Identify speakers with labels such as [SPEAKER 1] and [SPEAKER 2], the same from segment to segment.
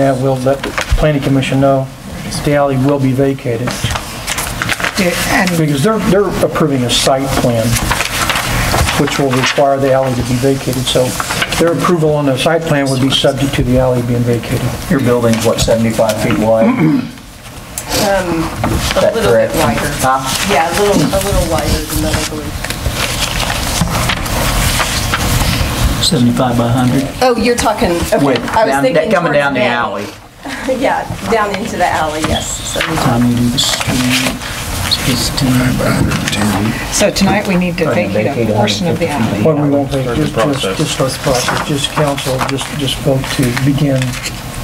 [SPEAKER 1] Yeah, we'll let the planning commission know the alley will be vacated,
[SPEAKER 2] And
[SPEAKER 1] because they're, they're approving a site plan, which will require the alley to be vacated, so their approval on the site plan would be subject to the alley being vacated.
[SPEAKER 3] Your building's what, 75 feet wide?
[SPEAKER 4] A
[SPEAKER 3] that
[SPEAKER 4] little bit
[SPEAKER 3] correct?
[SPEAKER 4] wider.
[SPEAKER 3] Huh?
[SPEAKER 4] Yeah, a little, a little wider than that, I believe.
[SPEAKER 5] 75 by 100.
[SPEAKER 4] Oh, you're talking, okay.
[SPEAKER 3] With,
[SPEAKER 4] I was
[SPEAKER 3] down-
[SPEAKER 4] thinking
[SPEAKER 3] that- coming
[SPEAKER 4] towards
[SPEAKER 3] down the alley.
[SPEAKER 4] Yeah, down into the alley, yes. So we-
[SPEAKER 5] Time you do the street is 10 by
[SPEAKER 2] so tonight we need to vacate
[SPEAKER 3] vacate
[SPEAKER 2] a portion of the alley.
[SPEAKER 1] Well, we won't vacate, just, just, just start the process, just council, just, just vote to begin,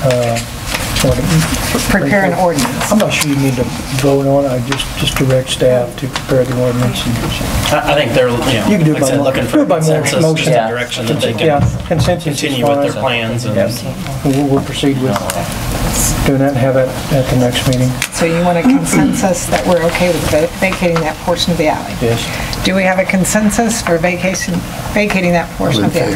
[SPEAKER 1] uh, what-
[SPEAKER 2] Prepare an ordinance.
[SPEAKER 1] I'm not sure you need to vote on, it. I just, just direct staff to prepare the ordinance. and-
[SPEAKER 6] I I think they're,
[SPEAKER 1] You
[SPEAKER 6] you
[SPEAKER 1] can do
[SPEAKER 6] know,
[SPEAKER 1] it
[SPEAKER 6] like I
[SPEAKER 1] by,
[SPEAKER 6] said,
[SPEAKER 1] mo-
[SPEAKER 6] looking
[SPEAKER 1] do
[SPEAKER 6] for
[SPEAKER 1] it by mo-
[SPEAKER 6] consensus, just
[SPEAKER 1] motion.
[SPEAKER 6] a
[SPEAKER 3] Yeah.
[SPEAKER 6] direction that they
[SPEAKER 1] Yeah,
[SPEAKER 6] can
[SPEAKER 1] consensus is
[SPEAKER 6] continue with their
[SPEAKER 1] fine.
[SPEAKER 6] plans and
[SPEAKER 3] Yeah.
[SPEAKER 1] We'll, we'll proceed with doing that and have it at the next meeting.
[SPEAKER 2] So you want a consensus that we're okay with va- vacating that portion of the alley?
[SPEAKER 1] Yes.
[SPEAKER 2] Do we have a consensus for vacation, vacating that portion of the alley?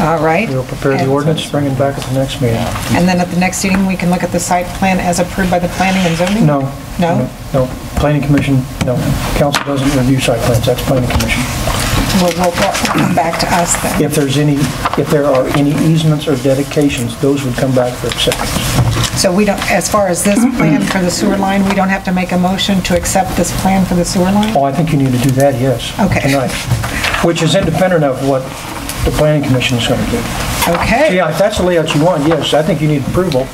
[SPEAKER 2] All right.
[SPEAKER 1] We'll prepare the
[SPEAKER 2] And-
[SPEAKER 1] ordinance, bring it back at the next meeting.
[SPEAKER 2] And then at the next meeting, we can look at the site plan as approved by the planning and zoning?
[SPEAKER 1] No.
[SPEAKER 2] No?
[SPEAKER 1] No, planning commission, no, council doesn't review site plans, that's planning commission.
[SPEAKER 2] Well, will come back to us then.
[SPEAKER 1] If there's any, if there are any easements or dedications, those would come back for acceptance.
[SPEAKER 2] So we don't, as far as this plan for the sewer line, we don't have to make a motion to accept this plan for the sewer line?
[SPEAKER 1] Oh, I think you need to do that, yes.
[SPEAKER 2] Okay.
[SPEAKER 1] Tonight, which is independent of what the planning commission is going to do.
[SPEAKER 2] Okay.
[SPEAKER 1] Yeah, if that's the layout you want, yes, I think you need approval,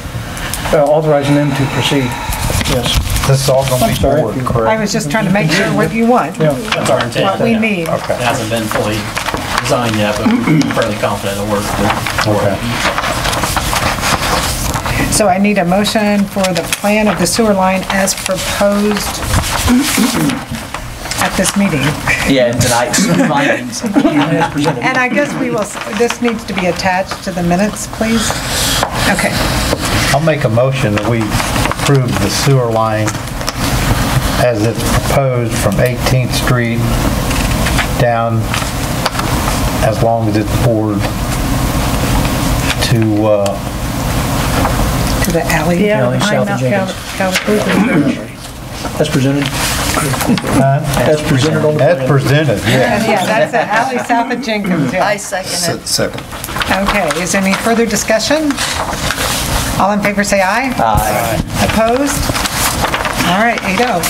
[SPEAKER 1] uh, authorizing them to proceed, yes.
[SPEAKER 3] This is all gonna
[SPEAKER 1] I'm sorry. if you-
[SPEAKER 2] I was just trying to make sure what you want,
[SPEAKER 1] Yeah.
[SPEAKER 6] that's our intent.
[SPEAKER 2] what we
[SPEAKER 6] Yeah.
[SPEAKER 2] need.
[SPEAKER 6] It hasn't been fully designed yet, but we're fairly confident it'll work.
[SPEAKER 3] Okay.
[SPEAKER 2] So I need a motion for the plan of the sewer line as proposed at this meeting.
[SPEAKER 3] Yeah, and tonight's findings.
[SPEAKER 2] And I guess we will, this needs to be attached to the minutes, please. Okay,
[SPEAKER 7] I'll make a motion that we approve the sewer line as it's proposed from 18th Street down, as long as it's poured, to, uh,
[SPEAKER 2] to the alley.
[SPEAKER 1] Alley south of Jenkins. That's presented, that's presented on the
[SPEAKER 7] as
[SPEAKER 1] plan.
[SPEAKER 7] presented, yeah.
[SPEAKER 2] Yeah, that's the alley south of Jenkins, yeah.
[SPEAKER 4] I second it.
[SPEAKER 8] Second.
[SPEAKER 2] Okay, is there any further discussion? All in favor, say aye.
[SPEAKER 3] Aye.
[SPEAKER 2] Opposed? All right, 8-0.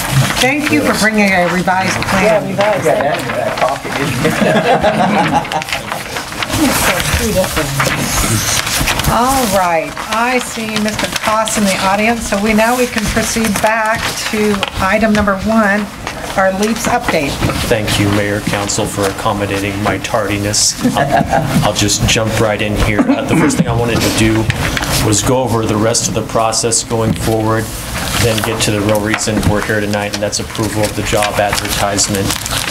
[SPEAKER 2] Thank you for bringing a revised plan.
[SPEAKER 3] You got that in your back pocket, didn't you?
[SPEAKER 2] All right, I see Mr. Koss in the audience, so we, now we can proceed back to item number one, our LEAPS update.
[SPEAKER 9] Thank you, Mayor, Council, for accommodating my tardiness. I'll I'll just jump right in here. Uh, The first thing I wanted to do was go over the rest of the process going forward, then get to the real reason we're here tonight, and that's approval of the job advertisement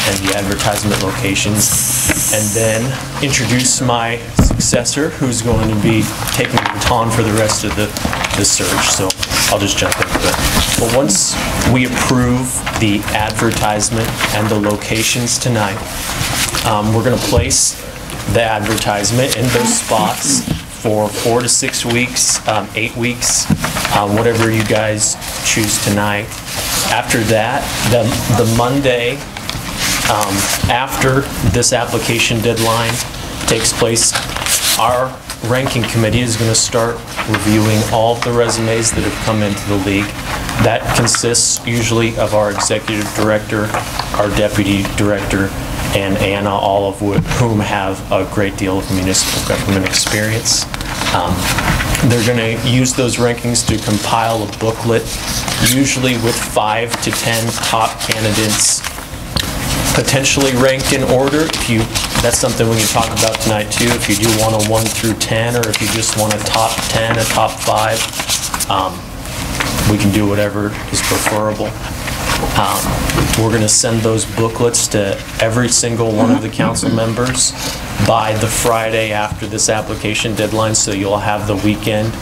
[SPEAKER 9] and the advertisement locations, and then introduce my successor, who's going to be taking the baton for the rest of the the search. So I'll just jump into it. But once we approve the advertisement and the locations tonight, um, we're going to place the advertisement in those spots for four to six weeks, um, eight weeks, uh, whatever you guys choose tonight. After that, the the Monday after this application deadline takes place, our ranking committee is going to start reviewing all of the resumes that have come into the league. That consists usually of our executive director, our deputy director, and Anna, all of wh- whom have a great deal of municipal government experience. Um, They're going to use those rankings to compile a booklet, usually with five to 10 top candidates potentially ranked in order. If you, that's something we can talk about tonight too, if you do want a 1 through 10, or if you just want a top 10, a top 5, um, we can do whatever is preferable. Um, We're going to send those booklets to every single one of the council members by the Friday after this application deadline, so you'll have the weekend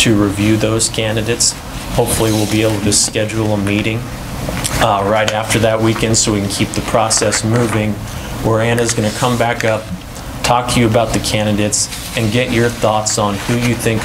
[SPEAKER 9] to review those candidates. Hopefully, we'll be able to schedule a meeting uh, right after that weekend so we can keep the process moving, where Anna's going to come back up, talk to you about the candidates, and get your thoughts on who you think